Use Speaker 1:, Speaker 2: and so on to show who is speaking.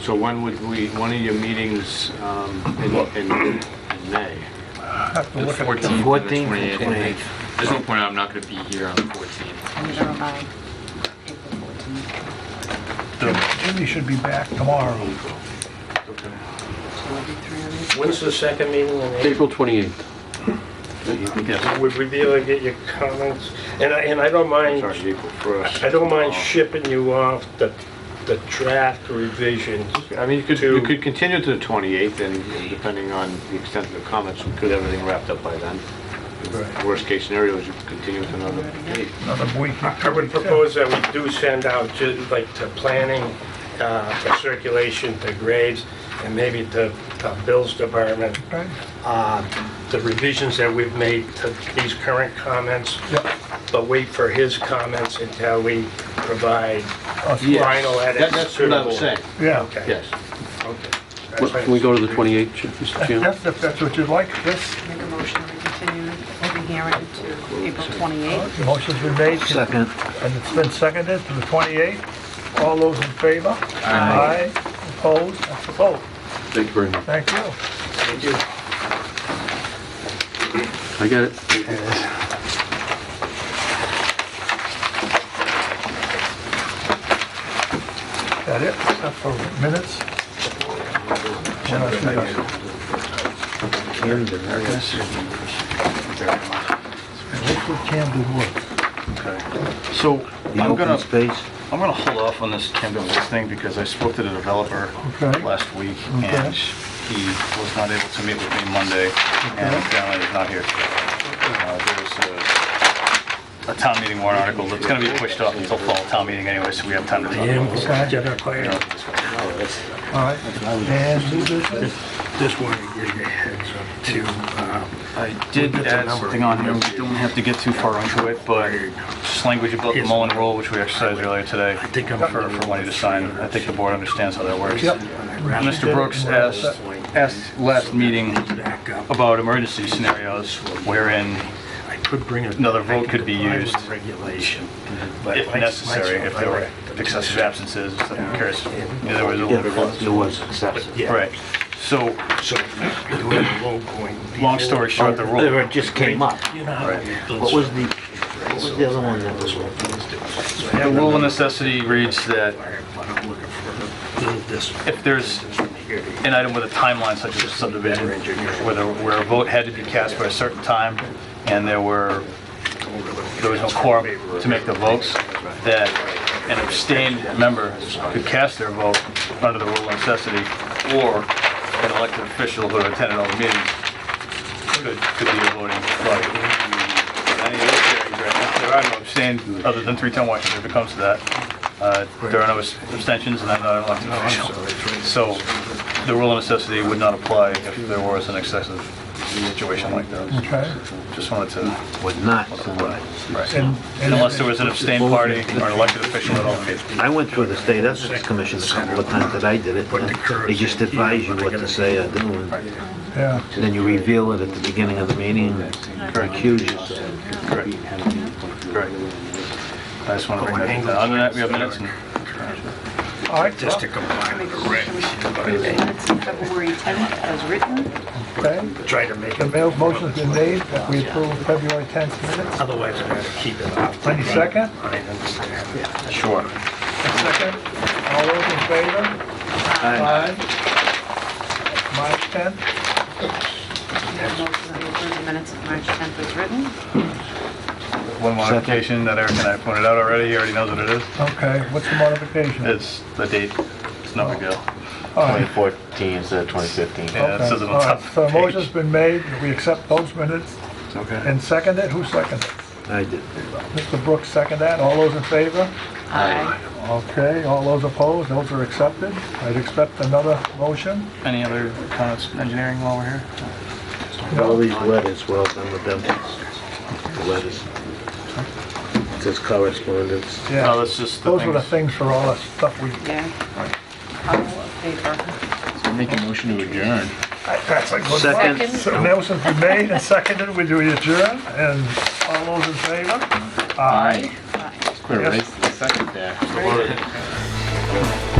Speaker 1: So when would we, one of your meetings um, in in- in May?
Speaker 2: have to look at it.
Speaker 3: 14th and the
Speaker 1: 14th,
Speaker 3: 28th. There's no point, I'm not going to be here on the 14th.
Speaker 4: I'm gonna buy April 14th.
Speaker 2: Jimmy should be back tomorrow.
Speaker 4: so it'll be three of you.
Speaker 5: When's the second meeting in April?
Speaker 6: April 28th.
Speaker 1: Yes,
Speaker 5: Would we be able to get your comments? And I, and I don't mind,
Speaker 1: sorry, April 1st.
Speaker 5: I don't mind shipping you off the, the draft revisions.
Speaker 1: I mean, you could, you
Speaker 5: to-
Speaker 1: could continue to the 28th, and and depending on the extent of the comments, we could have everything wrapped up by then.
Speaker 2: Right.
Speaker 1: Worst case scenario is you could continue to another date.
Speaker 2: Another week.
Speaker 5: I would propose that we do send out, to, like, to planning, uh, for circulation, to grades, and maybe to uh, Bill's department,
Speaker 2: Right?
Speaker 5: uh, the revisions that we've made to these current comments,
Speaker 2: Yep.
Speaker 5: but wait for his comments until we provide
Speaker 2: Us-
Speaker 1: Yes.
Speaker 5: final
Speaker 1: That-
Speaker 5: edits.
Speaker 1: That's
Speaker 5: to
Speaker 1: what
Speaker 5: the
Speaker 1: I'm
Speaker 5: board.
Speaker 1: saying,
Speaker 2: Yeah.
Speaker 5: Okay.
Speaker 1: yes.
Speaker 5: Okay.
Speaker 6: Can we go to the 28th, Ch- Mr. Chairman?
Speaker 2: That's, if that's what you'd like. This
Speaker 4: Make a motion to continue the hearing to April 28th.
Speaker 2: motion's been made. Second. And it's been seconded to the 28th. All those in favor? Aye. Opposed? That's a vote.
Speaker 6: Thank you very much.
Speaker 2: Thank you.
Speaker 5: Thank you.
Speaker 6: I got it.
Speaker 2: That it? Except for minutes? Liquid candid wood.
Speaker 7: So I'm
Speaker 8: open
Speaker 7: gonna,
Speaker 8: space.
Speaker 7: I'm gonna hold off on this Camden Woods thing because I spoke to the developer
Speaker 2: Okay.
Speaker 7: last week and he was not able to meet with me Monday and apparently is not here today. Uh, There's a, a town meeting warrant article that's gonna be pushed off until fall town meeting anyway, so we have time to talk about this.
Speaker 2: Okay,
Speaker 7: You know, this one.
Speaker 2: all right. And new business?
Speaker 5: Just wanted to give you a heads up too. um,
Speaker 7: I did add something on here, we don't have to get too far into it, but just language about the Mullen Rule, which we exercised earlier today,
Speaker 5: think I'm-
Speaker 7: for for Wendy to sign. I think the board understands how that works.
Speaker 2: Yep.
Speaker 7: Mr. Brooks asked, asked last meeting about emergency scenarios wherein,
Speaker 5: I could bring
Speaker 7: Another vote could be used.
Speaker 5: Regulation. but
Speaker 7: if
Speaker 5: I-
Speaker 7: necessary, if there were excessive absences, I'm curious, yeah, there was a little bit of...
Speaker 8: There was excessive.
Speaker 5: Yeah.
Speaker 7: Right, so,
Speaker 5: So, you have a low point.
Speaker 7: long story short, the
Speaker 8: There
Speaker 7: rule,
Speaker 8: it just came up.
Speaker 5: You know how
Speaker 7: Right.
Speaker 5: those-
Speaker 8: What was the, what was the other one that was?
Speaker 7: the rule of necessity reads that
Speaker 5: But I'm looking for this.
Speaker 7: if there's
Speaker 5: here.
Speaker 7: an item with a timeline such as a subdivision, where the- where a vote had to be cast by a certain time, and there were, there was no quorum to make the votes, that an abstained member could cast their vote under the rule of necessity, or an elected official who attended all the meetings could could be a voting body. Any of those hearings right now, There are no abstained, other than three-town Washington, if it comes to that. Uh, There are no abstentions, and I'm not an elected official. So the rule of necessity would not apply if there was an excessive situation like that.
Speaker 2: Okay.
Speaker 7: Just wanted to,
Speaker 8: Would not.
Speaker 7: right.
Speaker 2: And- and-
Speaker 7: Unless there was an abstained party or an elected official at all meetings.
Speaker 8: I went through the state ethics commission a couple of times that I did it. and They just advise you what to say or do. and
Speaker 2: Yeah,
Speaker 8: Then you reveal it at the beginning of the meeting and accuse yourself.
Speaker 7: Correct. Correct. I just want to bring that down. Other than that, we have minutes and
Speaker 2: all right,
Speaker 5: Just to comply
Speaker 4: Make
Speaker 5: with
Speaker 4: a
Speaker 5: the
Speaker 4: motion to
Speaker 5: regs.
Speaker 4: approve the minutes of February 10th as written.
Speaker 2: okay.
Speaker 5: Try to make
Speaker 2: The
Speaker 5: it,
Speaker 2: mail motion's been made, that we approve February 10th minutes.
Speaker 5: otherwise I'm gonna keep it off.
Speaker 2: Any second?
Speaker 5: I understand.
Speaker 7: Sure.
Speaker 2: Second. All those in favor? Aye. March 10th,
Speaker 4: Make a motion to approve the minutes of March 10th as written.
Speaker 7: One modification that Eric and I pointed out already, he already knows what it is.
Speaker 2: okay, what's the modification?
Speaker 7: It's the date. It's no big deal.
Speaker 2: All right.
Speaker 8: 2014 instead of 2015.
Speaker 7: Yeah, it
Speaker 2: Okay,
Speaker 7: says it
Speaker 2: all
Speaker 7: on
Speaker 2: right.
Speaker 7: top of
Speaker 2: So
Speaker 7: the
Speaker 2: a motion's
Speaker 7: page.
Speaker 2: been made, that we accept those minutes
Speaker 7: Okay.
Speaker 2: and second it, who seconded?
Speaker 8: I did.
Speaker 2: Mr. Brooks seconded that, all those in favor?
Speaker 4: Aye.
Speaker 2: Okay, all those opposed, those are accepted. I'd accept another motion.
Speaker 7: Any other comments, engineering, while we're here?
Speaker 8: All these letters, well done with them. The letters. It says correspondence.
Speaker 7: No,
Speaker 2: Yeah,
Speaker 7: that's just the
Speaker 2: those were the
Speaker 7: things.
Speaker 2: things for all the stuff we,
Speaker 4: Yeah. All in favor?
Speaker 3: Make a motion to adjourn.
Speaker 2: that's a good one.
Speaker 8: Second.
Speaker 2: So motion's been made and seconded, we do adjourn, and all those in favor? Aye.
Speaker 3: Clear, right? Second there.
Speaker 1: Well,